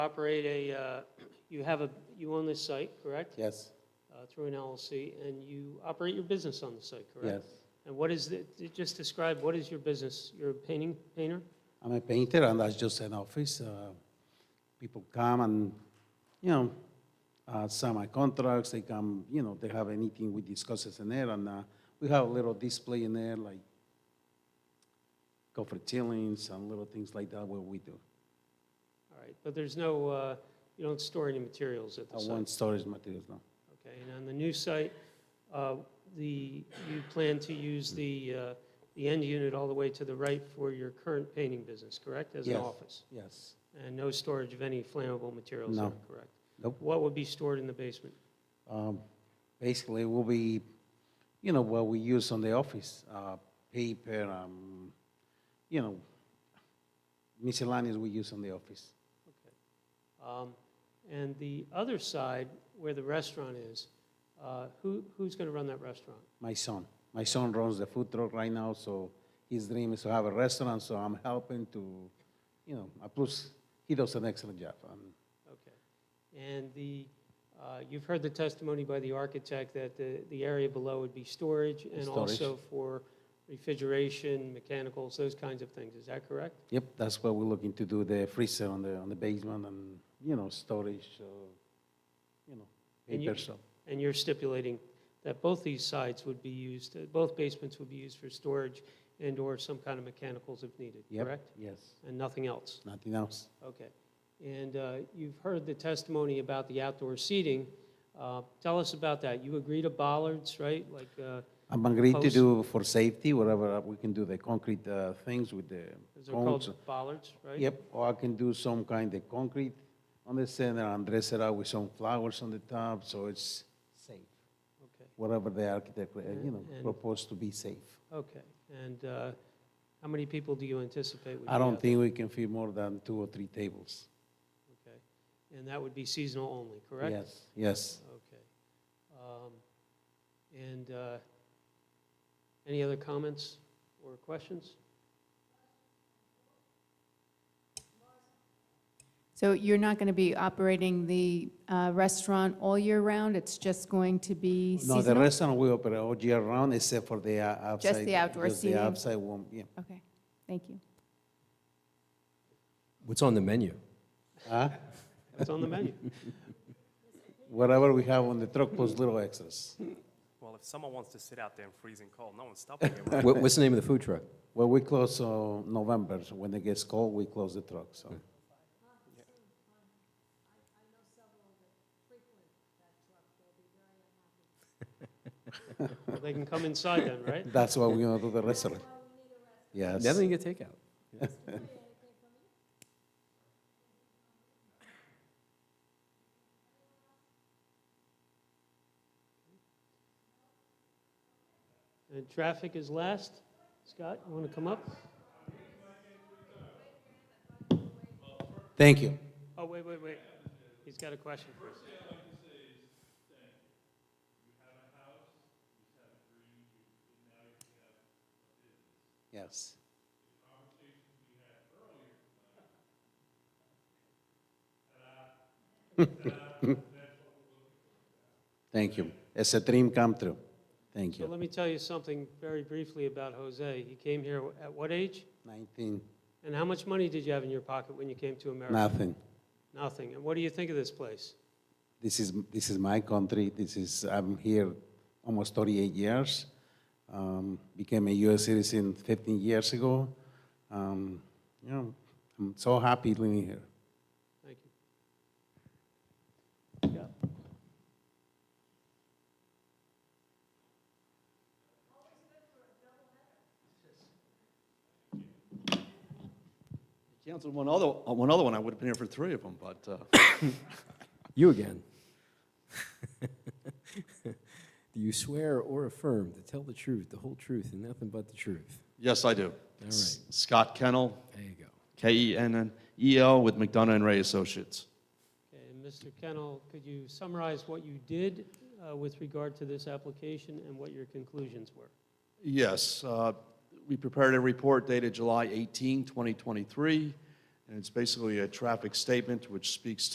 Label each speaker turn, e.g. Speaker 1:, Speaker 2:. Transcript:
Speaker 1: operate a, uh, you have a, you own this site, correct?
Speaker 2: Yes,
Speaker 1: Uh, Through an LLC, and you operate your business on the site,
Speaker 2: yes.
Speaker 1: correct? And what is, the- just describe, what is your business? You're a painting, painter?
Speaker 2: I'm a painter and that's just an office. Uh, People come and, you know, uh, sign my contracts, they come, you know, they have anything we discuss is in there and uh, we have a little display in there like coffer ceilings and little things like that what we do.
Speaker 1: All right, but there's no, uh, you don't store any materials at
Speaker 2: I
Speaker 1: the
Speaker 2: want
Speaker 1: site?
Speaker 2: storage materials now.
Speaker 1: Okay, and on the new site, uh, the, you plan to use the, uh, the end unit all the way to the right for your current painting business, correct? As an
Speaker 2: Yes.
Speaker 1: office?
Speaker 2: Yes.
Speaker 1: And no storage of any flammable materials there,
Speaker 2: No.
Speaker 1: correct?
Speaker 2: Nope.
Speaker 1: What would be stored in the basement?
Speaker 2: Um, Basically, will be, you know, what we use on the office, uh, paper, um, you know, miscellaneous we use on the office.
Speaker 1: Um, And the other side, where the restaurant is, uh, who, who's going to run that restaurant?
Speaker 2: My son, my son runs the food truck right now, so his dream is to have a restaurant, so I'm helping to, you know, uh, plus, he does an excellent job. Um,
Speaker 1: Okay. And the, uh, you've heard the testimony by the architect that the, the area below would be storage and
Speaker 2: Storage.
Speaker 1: also for refrigeration, mechanicals, those kinds of things. Is that correct?
Speaker 2: Yep, that's what we're looking to do, the freezer on the, on the basement and, you know, storage, uh, you know,
Speaker 1: And you-
Speaker 2: paper shop.
Speaker 1: And you're stipulating that both these sides would be used, uh, both basements would be used for storage and/or some kind of mechanicals if needed,
Speaker 2: Yep.
Speaker 1: correct?
Speaker 2: Yes,
Speaker 1: And nothing else?
Speaker 2: nothing else.
Speaker 1: Okay. And uh, you've heard the testimony about the outdoor seating. Uh, Tell us about that. You agree to bollards, right? Like, uh,
Speaker 2: I'm agreed to
Speaker 1: Post-
Speaker 2: do for safety, whatever, uh, we can do the concrete uh, things with the
Speaker 1: those are
Speaker 2: cones.
Speaker 1: called bollards, right?
Speaker 2: Yep, or I can do some kind of concrete on the center and dress it up with some flowers on the top, so it's safe.
Speaker 1: Okay,
Speaker 2: Whatever the architect, uh, you know,
Speaker 1: And- and-
Speaker 2: proposed to be safe.
Speaker 1: okay. And uh, how many people do you anticipate? would
Speaker 2: I
Speaker 1: be
Speaker 2: don't
Speaker 1: out there?
Speaker 2: think we can fit more than two or three tables.
Speaker 1: Okay. And that would be seasonal only, correct?
Speaker 2: Yes, yes.
Speaker 1: Okay. Um, And uh, any other comments or questions?
Speaker 3: So you're not going to be operating the uh, restaurant all year round? It's just going to be
Speaker 2: No, the
Speaker 3: seasonal?
Speaker 2: restaurant we operate all year round except for the uh, outside.
Speaker 3: Just the outdoor
Speaker 2: just
Speaker 3: seating?
Speaker 2: the outside one, yeah.
Speaker 3: Okay, thank you.
Speaker 4: What's on the menu?
Speaker 2: Huh?
Speaker 1: That's on the menu.
Speaker 2: Whatever we have on the truck, plus little extras.
Speaker 5: Well, if someone wants to sit out there and freeze and cold, no one's stopping you.
Speaker 4: What, what's the name of the food truck?
Speaker 2: Well, we close uh, November, so when it gets cold, we close the truck, so.
Speaker 1: They can come inside then, right?
Speaker 2: That's why we're gonna do the restaurant. Yes.
Speaker 4: Definitely get takeout.
Speaker 1: And traffic is last. Scott, you want to come up?
Speaker 2: Thank you.
Speaker 1: Oh, wait, wait, wait. He's got a question for us.
Speaker 2: Yes. Thank you. It's a dream come true. Thank
Speaker 1: So
Speaker 2: you.
Speaker 1: let me tell you something very briefly about Jose. He came here at what age?
Speaker 2: Nineteen,
Speaker 1: And how much money did you have in your pocket when you came to America?
Speaker 2: nothing.
Speaker 1: Nothing. And what do you think of this place?
Speaker 2: This is, this is my country. This is, I'm here almost 38 years. Um, became a U.S. citizen 15 years ago. Um, you know, I'm so happy living here.
Speaker 1: Thank you. Yeah.
Speaker 6: Canceled one other, uh, one other one, I would have been here for three of them, but, uh,
Speaker 4: You again. Do you swear or affirm to tell the truth, the whole truth, and nothing but the truth?
Speaker 6: yes, I do.
Speaker 4: right.
Speaker 6: Scott Kennel, E
Speaker 4: There you go.
Speaker 6: K-E-N-N-E-L with McDonough and Ray Associates.
Speaker 1: Okay, and Mr. Kennel, could you summarize what you did uh, with regard to this application and what your conclusions were?
Speaker 6: Yes, uh, we prepared a report dated July 18, 2023, And it's basically a traffic statement which speaks